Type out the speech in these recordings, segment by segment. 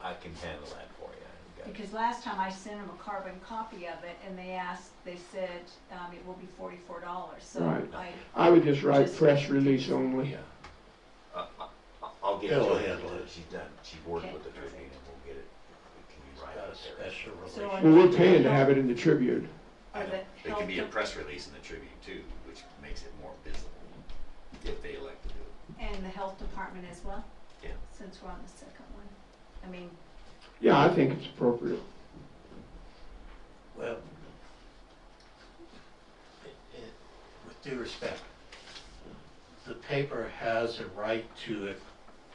I can handle that for you. I've got- Because last time I sent them a carbon copy of it and they asked, they said, um, it will be forty-four dollars, so No, I, I would just write Just- press release only. Yeah. I- I- I'll get He'll to it. handle it. She's done, she's worked Okay. with the Tribune and we'll get it. It can be right Got a up there. special So relationship. Well, we're paying to have it in the Tribune. I or know. the It can be a health, press release in the Tribune too, which makes it more visible if they elect to do it. and the health department as well? Yeah. Since we're on the second one, I mean, Yeah, I think it's appropriate. Well, it- it- with due respect, the paper has a right to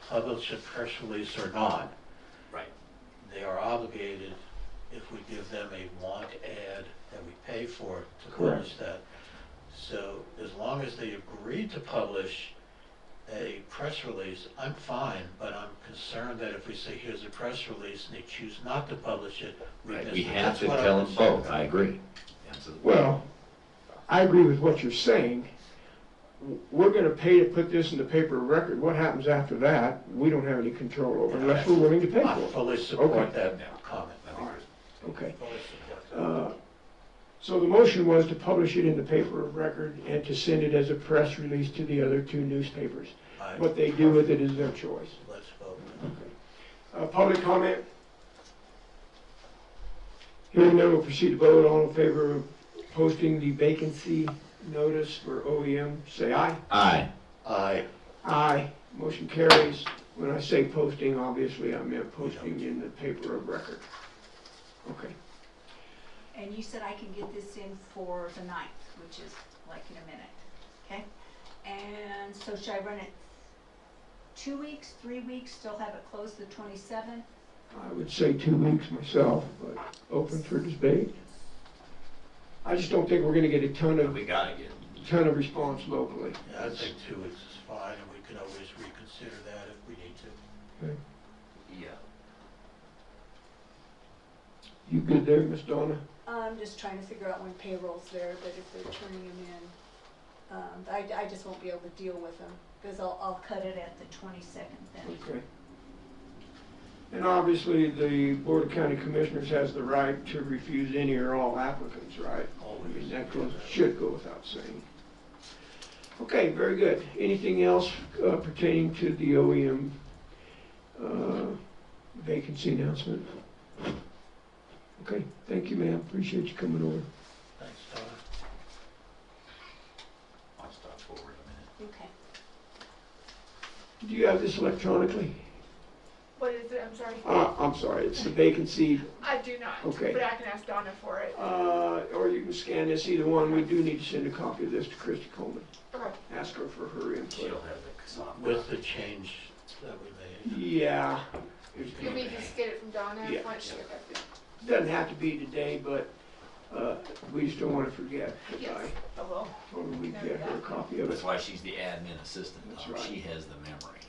publish a press release or not. Right. They are obligated, if we give them a want ad that we pay for, to Correct. publish that. So as long as they agree to publish a press release, I'm fine, but I'm concerned that if we say, here's a press release, and they choose not to publish it, we Right, miss we it. have That's to what I'm tell them concerned both, about. I agree, absolutely. Well, I agree with what you're saying. W- We're gonna pay to put this in the paper of record. What happens after that, we don't have any control over unless we're willing to pay I for fully Okay. support that comment. I think there's it. Okay. Fully support that. Uh, So the motion was to publish it in the paper of record and to send it as a press release to the other two newspapers. I- What they do with it is their choice. Let's vote. Uh, Public comment? Hearing none, we'll proceed to vote. All in favor of posting the vacancy notice for OEM, say aye. Aye, Aye. Aye. Motion carries. When I say posting, obviously I meant posting in the paper of record. Okay. and you said I can get this in for the ninth, which is like in a minute, okay? And so should I run it two weeks, three weeks, still have it closed the twenty-seventh? I would say two weeks myself, but open for debate. I just don't think we're gonna get a ton But of, we gotta get, ton of response locally. Yeah, I think two weeks is fine, and we can always reconsider that if we need to. yeah, You good there, Miss Donna? I'm just trying to figure out when payroll's there, but if they're turning them in, um, I, I just won't be able to deal with them, cause I'll, I'll cut it at the twenty-second then. Okay. And obviously, the Board of County Commissioners has the right to refuse any or all applicants, right? I mean, Always. that goes, should go without saying. Okay, very good. Anything else uh, pertaining to the OEM uh, vacancy announcement? Okay, thank you, ma'am. Appreciate you coming over. Thanks, Donna. I'll stop forward a minute. Okay. Do you have this electronically? What is it? I'm sorry. Uh, I'm sorry, it's the vacancy, I do not. Okay. But I can ask Donna for it. uh, or you can scan this, either one. We do need to send a copy of this to Christy Coleman. Okay. Ask her for her She'll input. have the soft With the change that we made. Yeah, You mean just get it from Donna Yeah. once she doesn't have to be today, but uh, we just don't want to forget. 'cause Yes. I- I will. Or we get her a copy of That's it. why she's the admin assistant, That's Tom. right. She has the memory.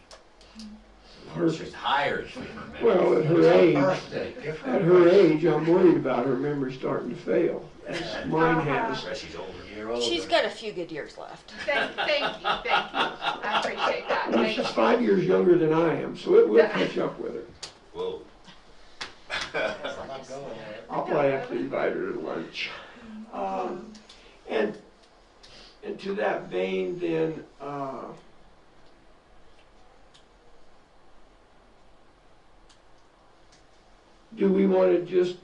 Her- She's hired for her memory. Well, at her age, Birthday, give her. at her age, I'm worried about her memory starting to fail, as mine has. But she's older. a Year older. She's got a few good years left. Thank, thank you. Thank you. I appreciate that. Well, Thank you. she's five years younger than I am, so it will catch up with her. Whoa. I'm not going there. I'll probably have to invite her to lunch. Um, And, and to that vein, then, uh, do we want to just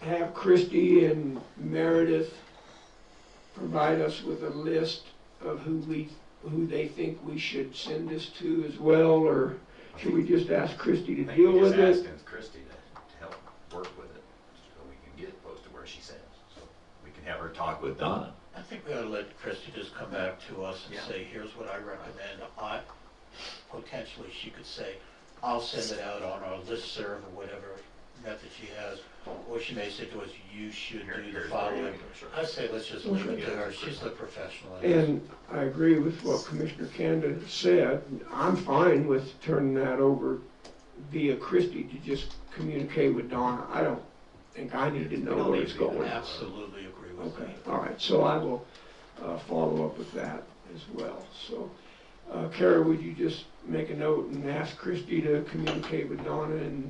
have Christie and Meredith provide us with a list of who we, who they think we should send this to as well, or I should we think- just ask Christie I to think deal we just with it? asked Christie to to help work with it, so we can get it close to where she says. So We can have her talk with Donna. I think we ought to let Christie just come back to us and Yeah. say, here's what I recommend. I, potentially, she could say, I'll send it out on our listserv or whatever method she has. Or she may say to us, you should Here- do the here's where you following. can- sure. I say, let's just leave it to Okay. her. She's the professional. in this. And I agree with what Commissioner Canada said. I'm fine with turning that over via Christie to just communicate with Donna. I don't think I need to know where it's going. Absolutely agree with Okay, that. all right, so I will uh, follow up with that as well. So, uh, Kara, would you just make a note and ask Christie to communicate with Donna and